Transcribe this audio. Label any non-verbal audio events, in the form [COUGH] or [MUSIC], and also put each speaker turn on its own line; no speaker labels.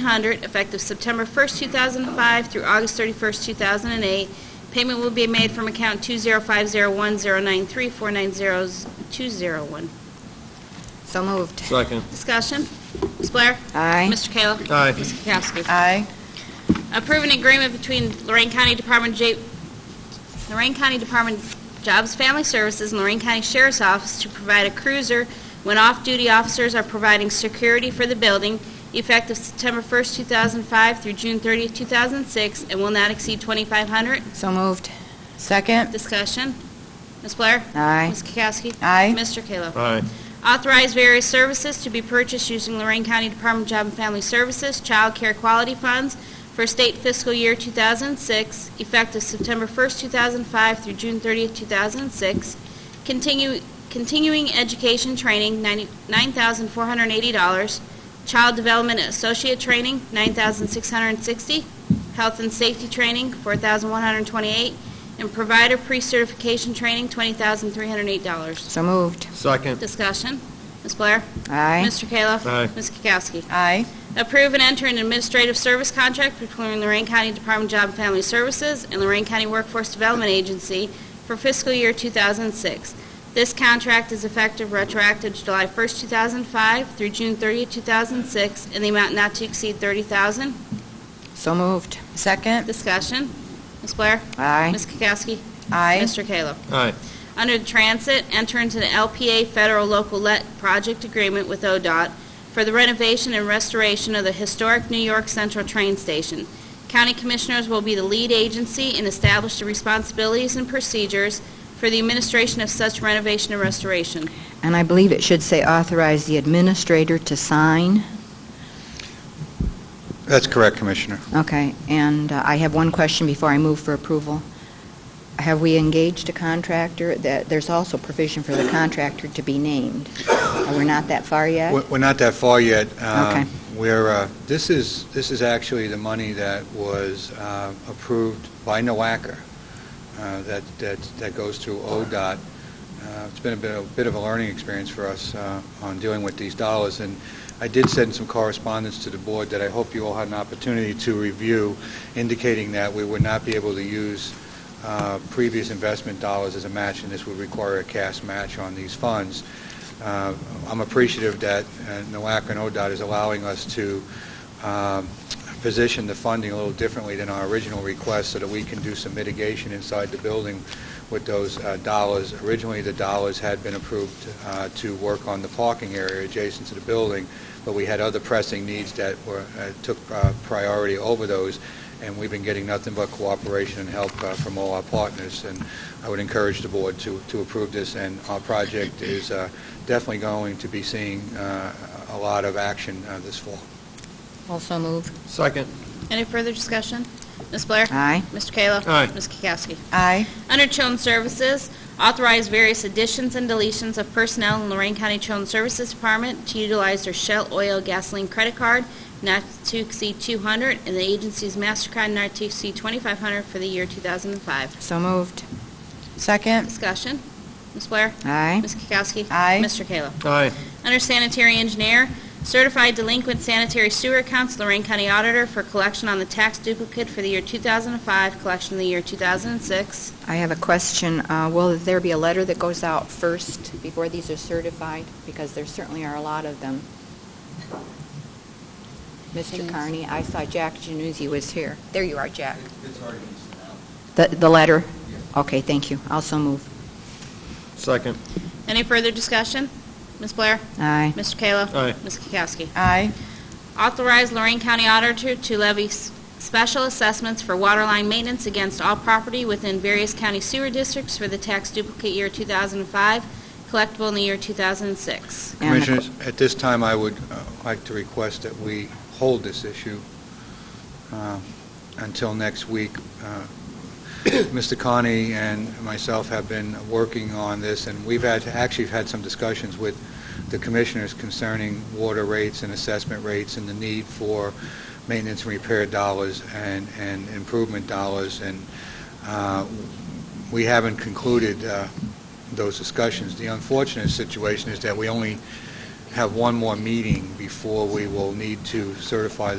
100, effective September 1st, 2005 through August 31st, 2008. Payment will be made from account 205010934902001.
So moved.
Second.
Discussion. Ms. Blair?
Aye.
Mr. Kayla?
Aye.
Ms. Kukowski?
Aye.
Approve an agreement between Lorraine County Department of J- Lorraine County Department of Jobs Family Services and Lorraine County Sheriff's Office to provide a cruiser when off-duty officers are providing security for the building, effective September 1st, 2005 through June 30th, 2006, and will not exceed 2,500.
So moved. Second.
Discussion. Ms. Blair?
Aye.
Ms. Kukowski?
Aye.
Mr. Kayla?
Aye.
Authorize various services to be purchased using Lorraine County Department of Job and Family Services Child Care Quality Funds for state fiscal year 2006, effective September 1st, 2005 through June 30th, 2006. Continue- Continuing education training, 90 $9,480. Child Development Associate Training, $9,660. Health and Safety Training, $4,128. And Provider Pre-Certification Training, $20,308.
So moved.
Second.
Discussion. Ms. Blair?
Aye.
Mr. Kayla?
Aye.
Ms. Kukowski?
Aye.
Approve and enter an administrative service contract between Lorraine County Department of Job and Family Services and Lorraine County Workforce Development Agency for fiscal year 2006. This contract is effective retroactive to July 1st, 2005 through June 30th, 2006, in the amount not to exceed 30000
So moved. Second.
Discussion. Ms. Blair?
Aye.
Ms. Kukowski?
Aye.
Mr. Kayla?
Aye.
Under the Transit, enter into the LPA Federal Local Let Project Agreement with ODOT for the renovation and restoration of the historic New York Central Train Station. County Commissioners will be the lead agency and establish the responsibilities and procedures for the administration of such renovation and restoration.
And I believe it should say authorize the administrator to sign.
That's correct, Commissioner.
Okay. And uh, I have one question before I move for approval. Have we engaged a contractor? That There's also provision for the contractor to be named. Uh, We're not that far yet?
We're we're not that far yet. Um,
Okay.
We're, uh, this is, this is actually the money that was uh, approved by NOACA, uh, that, that that goes through ODOT. Uh, It's been a bit, a bit of a learning experience for us uh, on dealing with these dollars, and I did send some correspondence to the board that I hope you all had an opportunity to review, indicating that we would not be able to use uh, previous investment dollars as a match, and this would require a cash match on these funds. Uh, I'm appreciative that uh, NOAC and ODOT is allowing us to um, position the funding a little differently than our original request so that we can do some mitigation inside the building with those uh, dollars. Originally, the dollars had been approved uh, to work on the parking area adjacent to the building, but we had other pressing needs that were, uh, took uh, priority over those, and we've been getting nothing but cooperation and help uh, from all our partners. And I would encourage the board to to approve this, and our project is uh, definitely going to be seeing uh, a lot of action uh, this fall.
Also moved.
Second.
Any further discussion? Ms. Blair?
Aye.
Mr. Kayla?
Aye.
Ms. Kukowski?
Aye.
Under Children's Services, authorize various additions and deletions of personnel in Lorraine County Children's Services Department to utilize their Shell Oil Gasoline Credit Card not to exceed 200 and the agency's MasterCard not to exceed 2,500 for the year 2005.
So moved. Second.
Discussion. Ms. Blair?
Aye.
Ms. Kukowski?
Aye.
Mr. Kayla?
Aye.
Under sanitary engineer, certified delinquent sanitary sewer accounts, Lorraine County Auditor for collection on the tax duplicate for the year 2005, collection of the year 2006.
I have a question. Uh, Will there be a letter that goes out first before these are certified? Because there certainly are a lot of them. Mr. Carney, I saw Jack Januzzi was here. There you are, Jack. The the letter? Okay, thank you. Also move.
Second.
Any further discussion? Ms. Blair?
Aye.
Mr. Kayla?
Aye.
Ms. Kukowski?
Aye.
Authorize Lorraine County Auditor to levy s- special assessments for waterline maintenance against all property within various county sewer districts for the tax duplicate year 2005, collectible in the year 2006.
And the-
Commissioners, at this time, I would uh, like to request that we hold this issue uh, until next week. Uh, [COUGHS] Mr. Connie and myself have been working on this, and we've had, actually had some discussions with the commissioners concerning water rates and assessment rates and the need for maintenance and repair dollars and and improvement dollars, and uh, we haven't concluded uh, those discussions. The unfortunate situation is that we only have one more meeting before we will need to certify